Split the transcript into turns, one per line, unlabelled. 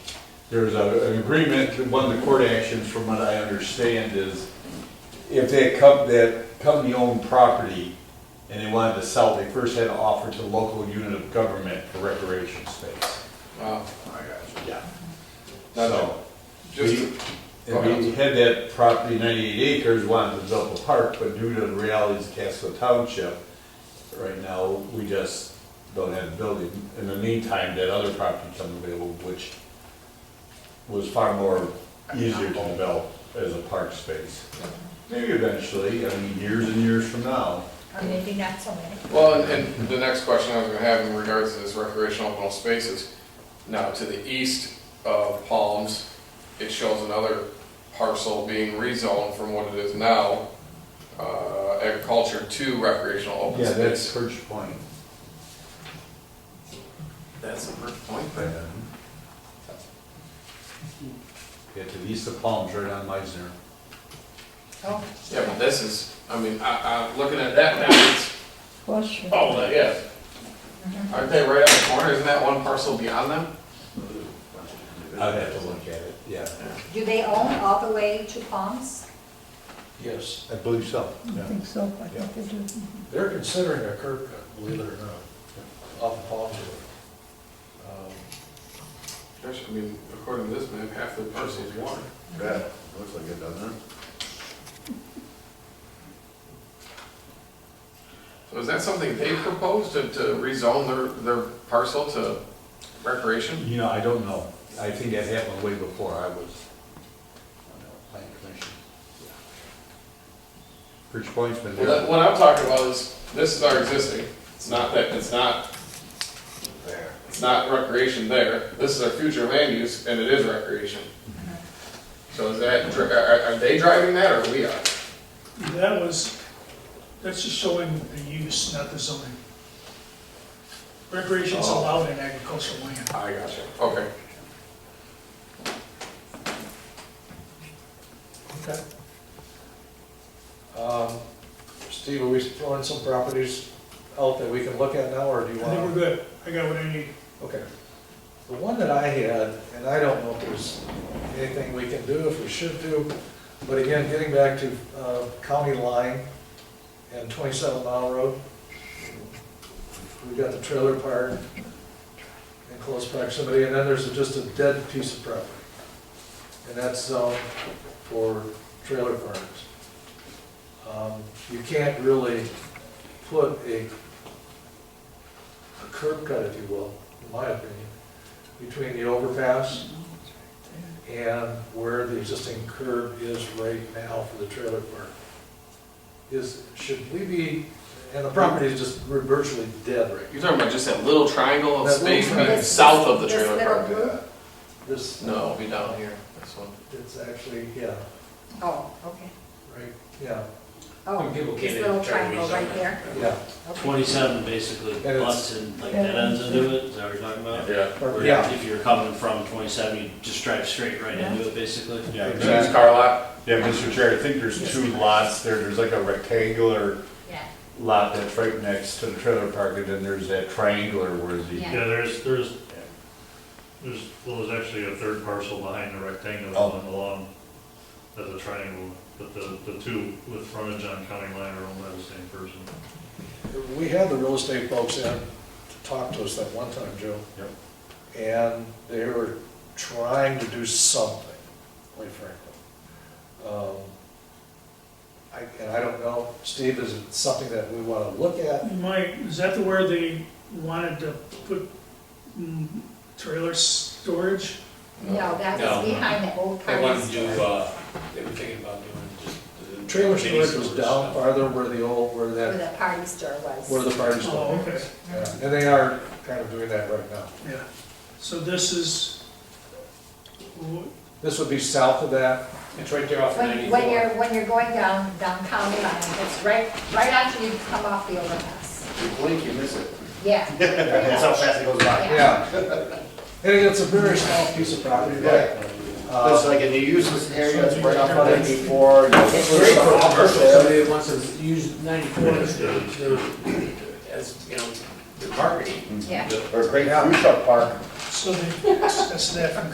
there's a, an agreement, one of the court actions, from what I understand, is if that com, that company owned property and they wanted to sell, they first had to offer to the local unit of government for recreation space.
Wow, I got
Yeah.
Now,
So,
you. Just,
and we had that property, ninety-eight acres, wanted to develop a park, but due to the realities of Casco Township, right now, we just don't have a building. In the meantime, that other property comes available, which was far more easier to develop as a park space. Maybe eventually, I mean, years and years from now.
Or maybe not so many.
well, and, and the next question I was gonna have in regards to this recreational open spaces, now to the east of Palms, it shows another parcel being rezoned from what it is now, uh, agriculture to recreational open space.
Perch Point.
That's a good point,
Yeah, to the east of Palms, right on Meisner.
Oh,
Yeah, but this is, I mean, I, I, looking at that now, it's
Question.
Oh, that, yeah. Aren't they right on the corner? Isn't that one parcel beyond them?
I'd have to look at it, yeah.
do they own all the way to Palms?
Yes,
I believe so.
I don't think so, I think they do.
they're considering a curb cut, believe it or not, off of Palm Um, Road.
There's, I mean, according to this map, half the parcel is water.
Yeah, looks like it, doesn't it?
So is that something they proposed to, to rezone their, their parcel to recreation?
You know, I don't know. I think that happened way before I was on the planning commission. Bridge Point's been
Well, that-
there.
What I'm talking about is, this is our existing. It's not that, it's not,
There.
it's not recreation there. This is our future land use and it is recreation. So is that, dri- are, are they driving that or we are?
That was, that's just showing the use, not the zoning. Recreation's
Oh.
allowed in agricultural land.
I gotcha. Okay.
Okay. Um, Steve, are we throwing some properties out that we can look at now, or do
I
you
think we're
want?
good, I got what I need.
Okay. The one that I had, and I don't know if there's anything we can do, if we should do, but again, getting back to uh, County Line and 27 Mile Road, we've got the trailer park in close proximity, and then there's just a dead piece of property. And that's zoned for trailer parks. Um, You can't really put a a curb cut, if you will, in my opinion, between the overpass and where the existing curb is right now for the trailer park. Is, should we be, and the property is just virtually dead right
You're talking about just that little triangle of
That
space
little triangle.
being south of the
This- this
trailer
little
park?
blue?
now. This,
No, it'll be down here, this one.
it's actually, yeah,
Oh, okay.
right, yeah,
Oh,
people
this
can't
little
even
triangle
carry
right there.
yeah.
Okay.
27 basically
it's-
butts and like dead ends into it, is that what you're talking about?
Yeah.
Where
Yeah.
If you're coming from 27, you just drive straight right into it basically?
Yeah,
Used car lot?
yeah, Mr. Chair, I think there's two lots there. There's like a rectangular
Yeah,
lot that's right next to the trailer park, and then there's that triangular where the,
Yeah.
Yeah, there's, there's, there's, well, there's actually a third parcel behind the rectangular
Oh.
one along as a triangle, but the, the two with frontage on county line are owned by the same person.
We had the real estate folks in to talk to us that one time, Joe.
Yep.
And they were trying to do something, quite frankly. Um, I, and I don't know, Steve, is it something that we wanna look at?
Mike, is that the where they wanted to put mm, trailer storage?
no, that
No.
was behind the old
They wanted
party
to do,
store.
uh, they were thinking about doing just. the
Trailer
mini
storage was
stores
down
stuff.
farther where the old, where
Where
that,
the party store was.
where the party
Oh,
store.
okay,
Yeah, And they are kind of doing that right now.
yeah. So this is,
This would be south of that,
It's right there off of
When, when
94.
you're, when you're going down, down county line, it's right, right after you come off the overpass.
You blink, you miss it.
Yeah.
That's how fast it goes by.
yeah. And it's a very small piece of property, but, uh,
Looks like in the useless area, it's right off of ninety-four.
It's great for commercial.
There.
Somebody wants to use 94 as their, as, you know, their marketing.
Yeah.
Or a great food truck park.
so they, that's that from